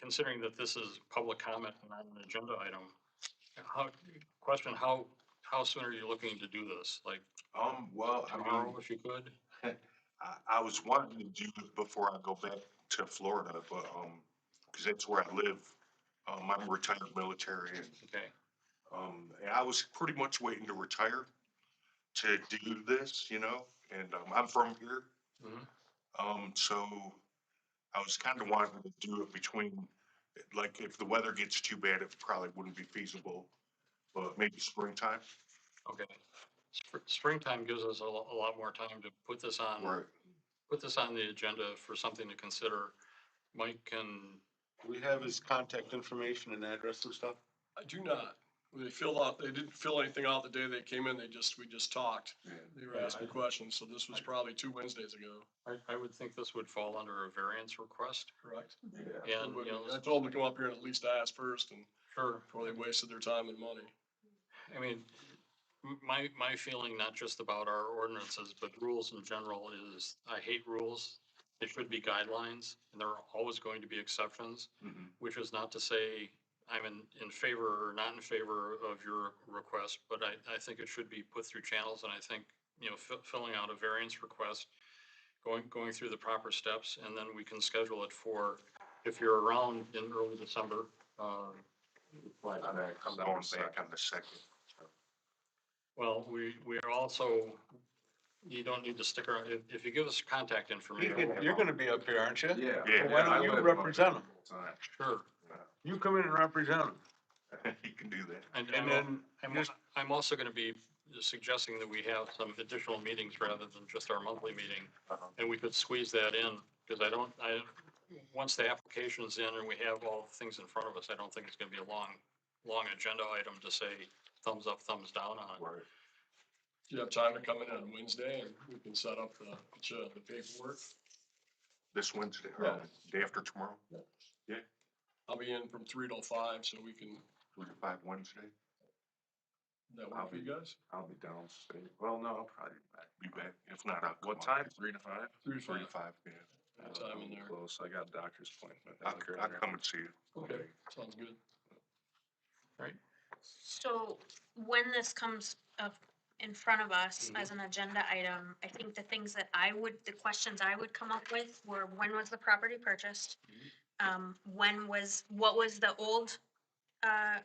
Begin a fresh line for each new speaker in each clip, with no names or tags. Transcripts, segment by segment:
considering that this is public comment and not an agenda item, how, question, how, how soon are you looking to do this? Like
Um, well, I
tomorrow,
mean,
if you could?
I, I was wanting to do it before I go back to Florida, but, um, cause that's where I live. Um, I'm retired military and,
Okay,
um, and I was pretty much waiting to retire to do this, you know, and, um, I'm from here.
Mhm.
Um, so I was kind of wanting to do it between, like, if the weather gets too bad, it probably wouldn't be feasible, but maybe springtime.
okay. Spr- Springtime gives us a lo- a lot more time to put this on.
Right.
put this on the agenda for something to consider. Mike can,
We have his contact information and address and stuff.
I do not. They filled out, they didn't fill anything out the day they came in. They just, we just talked.
Yeah.
They were
Yeah,
asking
I-
questions, so this was probably two Wednesdays ago,
I, I would think this would fall under a variance request.
correct?
Yeah.
And, you know,
I told them to come up here and at least ask first and
sure,
before they wasted their time and money.
I mean, m- my, my feeling, not just about our ordinances, but rules in general is I hate rules. They should be guidelines and there are always going to be exceptions,
Mhm.
which is not to say I'm in, in favor or not in favor of your request, but I, I think it should be put through channels and I think, you know, fi- filling out a variance request, going, going through the proper steps and then we can schedule it for, if you're around in early December, uh, like,
I'm going uh, back on the second.
well, we, we are also, you don't need to stick around, if, if you give us contact information,
You're gonna be up here, aren't you?
Yeah.
Yeah.
Why don't
I
you
live up
represent him?
there.
sure.
You come in and represent him.
You can do that.
And,
And
and
then
I'm,
just-
I'm also gonna be suggesting that we have some additional meetings rather than just our monthly meeting.
Uh-huh.
And we could squeeze that in, because I don't, I, once the application's in and we have all the things in front of us, I don't think it's gonna be a long, long agenda item to say thumbs up, thumbs down on.
Right.
Do you have time to come in on Wednesday and we can set up the, the paperwork?
This Wednesday, or day after tomorrow,
I'll be in from three till five, so we can,
three to five Wednesday,
that work for you guys?
I'll be down. Well, no, I'll probably be back.
be back. If not, I'll. come
What
on.
time? Three to five?
Three to
Three to five,
five.
yeah.
Good Time in there.
Uh, Close. I got a doctor's appointment.
I'll, I'll come and see you.
Okay, sounds good.
So when this comes up in front of us
Mm-hmm.
as an agenda item, I think the things that I would, the questions I would come up with were, when was the property purchased?
Mm-hmm.
Um, when was, what was the old, uh,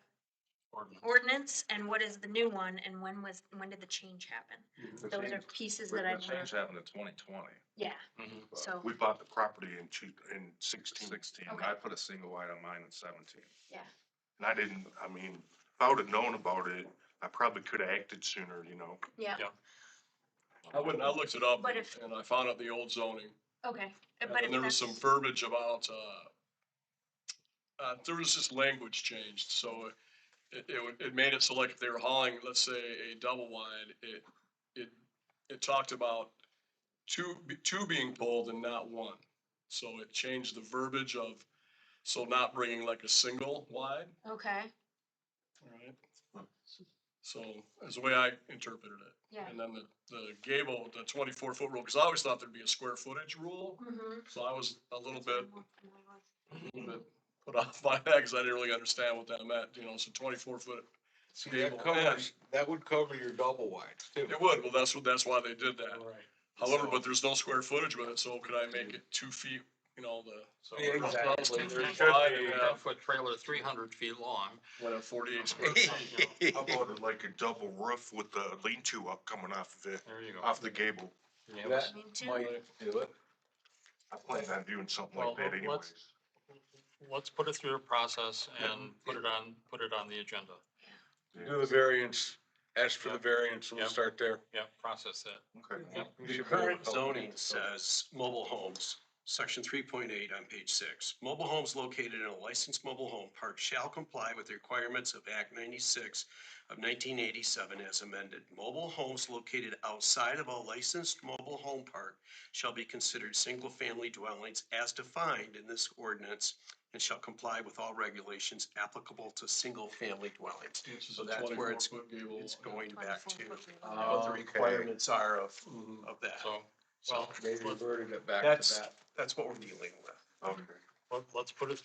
ordinance.
ordinance and what is the new one? And when was, when did the change happen? Those are pieces that I,
The change happened in twenty twenty,
yeah,
Mhm.
so,
We bought the property in two, in sixteen, and
sixteen.
Okay.
I put a single wide on mine in seventeen.
yeah.
I didn't, I mean, if I would've known about it, I probably could've acted sooner, you know?
Yeah,
I wouldn't, I looked it up
But if-
and I found out the old zoning.
okay.
And
But if
then there was some
that's-
verbiage about, uh, uh, there was just language changed, so it, it, would- it made it so like if they were hauling, let's say, a double wide, it, it, it talked about two, be- two being pulled and not one. So it changed the verbiage of, so not bringing like a single wide,
Okay,
alright? So, is the way I interpreted it.
yeah.
And then the, the gable, the twenty-four foot rule, because I always thought there'd be a square footage rule,
Mhm.
so I was a little
That's what
bit
I'm working on.
bit put off by that because I didn't really understand what that meant, you know, so twenty-four foot.
See,
Gable
that covers, that would cover your double wides too.
It would, well, that's what, that's why they did that.
All right.
However,
So-
but there's no square footage with it, so could I make it two feet, you know, the,
So.
Yeah,
we're-
exactly.
There should
Wide,
be a
yeah.
ten-foot trailer, three hundred feet long.
what, a forty-eight square?
you know,
How about it like a double roof with the lean-to up coming off of it,
There you go.
off the gable?
Yeah,
That-
I mean, two-
Might do it.
I plan on doing something like
Well,
that
let's-
anyways.
Let's put it through a process and put it on, put it on the agenda.
Do the variance, ask for the
Yeah.
variance, and
Yeah.
we'll start there.
Yeah, process that.
Okay.
We
The
should be able to
current
help.
zoning says mobile homes, section three point eight on page six. Mobile homes located in a licensed mobile home park shall comply with the requirements of Act ninety-six of nineteen eighty-seven as amended. Mobile homes located outside of a licensed mobile home park shall be considered single-family dwellings as defined in this ordinance and shall comply with all regulations applicable to single-family dwellings.
Which is
So
a
that's where
twenty-four
it's-
foot gable.
It's going back to
24 foot.
what the
Oh, Okay.
requirements are of,
Mm-hmm.
Mhm.
of that.
So,
So
well,
They
let's-
reverted it back to
That's-
that.
that's what we're dealing with.
Okay.
let- let's put it